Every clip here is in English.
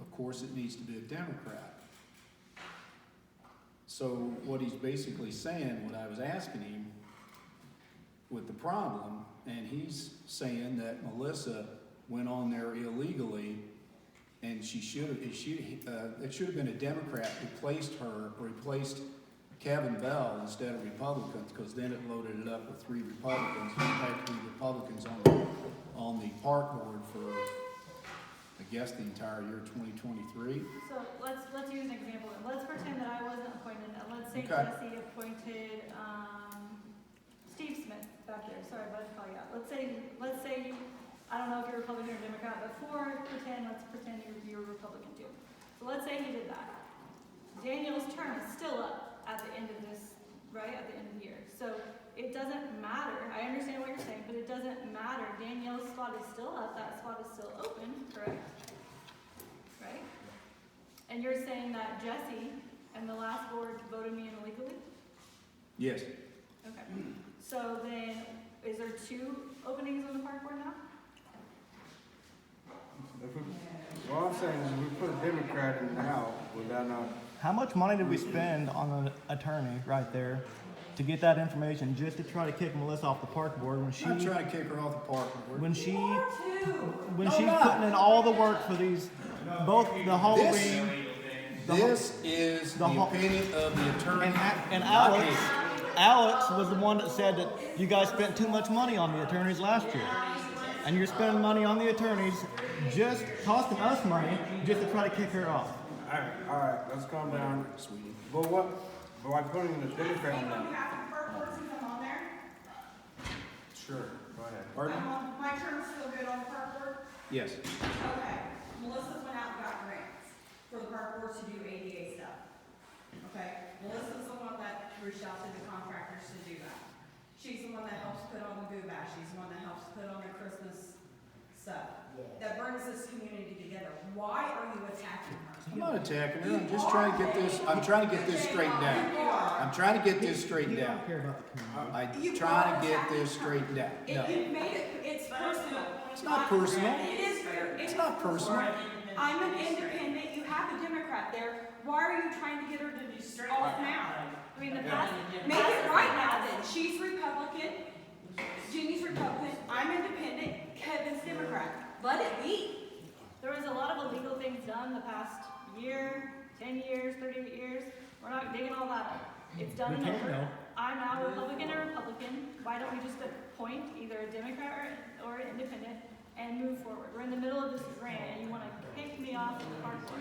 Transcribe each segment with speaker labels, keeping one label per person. Speaker 1: Of course, it needs to be a Democrat. So what he's basically saying, what I was asking him with the problem, and he's saying that Melissa went on there illegally and she should have, it should, uh, it should have been a Democrat who placed her, replaced Kevin Bell instead of Republicans, because then it loaded it up with three Republicans, in fact, three Republicans on, the on the park board for, I guess, the entire year twenty twenty-three.
Speaker 2: So let's, let's use an example, let's pretend that I wasn't appointed, and let's say
Speaker 1: Okay.
Speaker 2: Jesse appointed, um, Steve Smith back there, sorry, but I call you out. Let's say, let's say, I don't know if you're Republican or Democrat, but for pretend, let's pretend you're, you're Republican too. So let's say he did that. Daniel's term is still up at the end of this, right, at the end of the year. So it doesn't matter, I understand what you're saying, but it doesn't matter, Danielle's spot is still up, that spot is still open, correct? Right? And you're saying that Jesse and the last board voted me in illegally?
Speaker 1: Yes,
Speaker 2: Okay. So then, is there two openings on the park board now?
Speaker 3: If we, what I'm saying is if we put a Democrat in now, would that not,
Speaker 4: How much money did we spend on an attorney right there to get that information just to try to kick Melissa off the park board when she
Speaker 1: I'm trying to kick her off the park board.
Speaker 4: when she when she's putting in all the work for these both the Halloween the whole-
Speaker 1: This is the
Speaker 4: the whole-
Speaker 1: opinion of the attorney.
Speaker 4: and, A- and
Speaker 1: not
Speaker 4: Alex
Speaker 1: me.
Speaker 4: Alex was the one that said that you guys spent too much money on the attorneys last year. And you're spending money on the attorneys just costing us money just to try to kick her off.
Speaker 3: alright, alright, let's calm down.
Speaker 1: Sweetie.
Speaker 3: But what, but by putting a Democrat in now?
Speaker 5: half of our person come on there.
Speaker 3: Sure, go ahead.
Speaker 1: Pardon?
Speaker 5: I'm on- Um, My term's still good on the park board.
Speaker 1: Yes.
Speaker 5: Okay, Melissa went out and got grants for the park board to do ADA stuff. Okay, Melissa's the one that reached out to the contractors to do that. She's the one that helps put on the boo bash, she's the one that helps put on the Christmas stuff. That brings this community together. Why are you attacking her?
Speaker 1: I'm not attacking her, I'm just trying to get this, I'm trying to get this straightened out. I'm trying to get this straightened out.
Speaker 4: Care about the community.
Speaker 1: I'm trying to get this straightened out.
Speaker 5: It,
Speaker 1: No,
Speaker 5: you made it, it's personal.
Speaker 1: It's not personal.
Speaker 5: It is, fair-
Speaker 1: It's not personal.
Speaker 5: I'm an independent, you have a Democrat there, why are you trying to get her to be off now?
Speaker 2: I mean, the past,
Speaker 5: Make it right now then, she's Republican, Jenny's Republican, I'm independent, Kevin's Democrat, let it be.
Speaker 2: there was a lot of illegal things done the past year, ten years, thirty years. We're not digging all that up. It's done and
Speaker 4: We can't
Speaker 2: over.
Speaker 4: know.
Speaker 2: I'm now Republican or Republican. Why don't we just appoint either a Democrat or, or an independent and move forward? We're in the middle of this grant and you wanna kick me off the park board.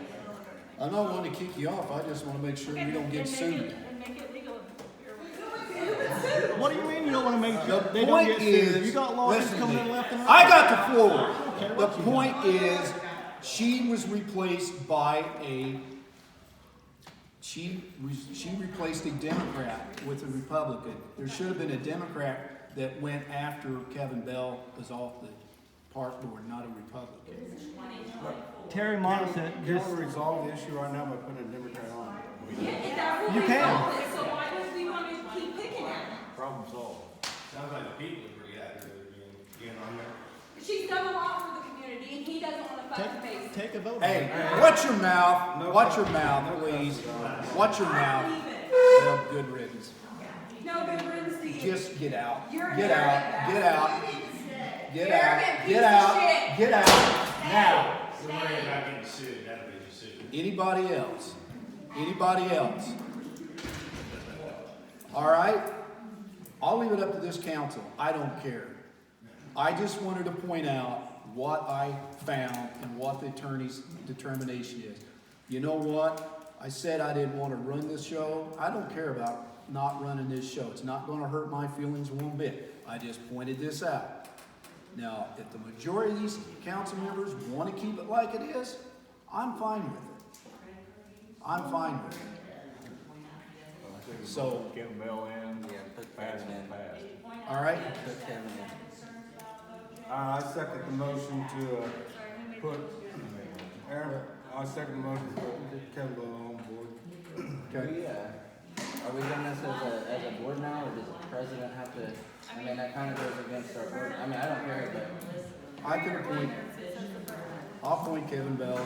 Speaker 1: I'm not wanting to kick you off, I just wanna make sure
Speaker 2: Okay,
Speaker 1: we don't get
Speaker 2: then make it-
Speaker 1: sued.
Speaker 2: then make it legal.
Speaker 4: What do you mean you don't want to make sure
Speaker 1: The
Speaker 4: they don't get
Speaker 1: point
Speaker 4: sued?
Speaker 1: is,
Speaker 4: You got lawyers
Speaker 1: listen to
Speaker 4: coming
Speaker 1: me.
Speaker 4: in left and right.
Speaker 1: I got the floor. The point is, she was replaced by a, she, was- she replaced a Democrat with a Republican. There should have been a Democrat that went after Kevin Bell was off the park board, not a Republican.
Speaker 4: Terry Monson
Speaker 3: Can we-
Speaker 4: just
Speaker 3: Can we resolve the issue right now by putting a Democrat on? Uh,
Speaker 4: You
Speaker 5: You
Speaker 4: can.
Speaker 5: So why does we want to keep picking at her?
Speaker 3: Problem solved.
Speaker 6: Sounds like the people are reacting, you know, on there.
Speaker 5: She's done a lot for the community and he doesn't want to fucking face it.
Speaker 4: take, take a vote.
Speaker 1: Hey, watch your mouth, watch your mouth, please. Watch your mouth. Well, good riddance.
Speaker 5: No good riddance to you.
Speaker 1: Just get out.
Speaker 5: You're an
Speaker 1: Get out. Get out. Get
Speaker 5: You're an
Speaker 1: out. Get
Speaker 5: arrogant piece of
Speaker 1: out.
Speaker 5: shit.
Speaker 1: Get out. Now.
Speaker 6: We're worried about getting sued, that'll be just sued.
Speaker 1: Anybody else? Anybody else? All right? I'll leave it up to this council. I don't care. I just wanted to point out what I found and what the attorney's determination is. You know what? I said I didn't want to run this show. I don't care about not running this show. It's not going to hurt my feelings one bit. I just pointed this out. Now, if the majority of these council members want to keep it like it is, I'm fine with it. I'm fine with it. So,
Speaker 3: Get Bell in,
Speaker 7: Yeah, put that
Speaker 3: fast
Speaker 7: in.
Speaker 3: and fast.
Speaker 1: all right?
Speaker 7: Put that in.
Speaker 3: Uh, I second the motion to, uh,
Speaker 2: Sorry, who made the
Speaker 3: put,
Speaker 2: motion?
Speaker 3: Aaron, I second the motion to put Kevin Bell on board.
Speaker 1: Okay.
Speaker 7: We, uh, are we doing this as a, as a board now, or does the president have to, I mean, that kind of goes against our board, I mean, I don't care, but.
Speaker 1: I can appoint, I'll appoint Kevin Bell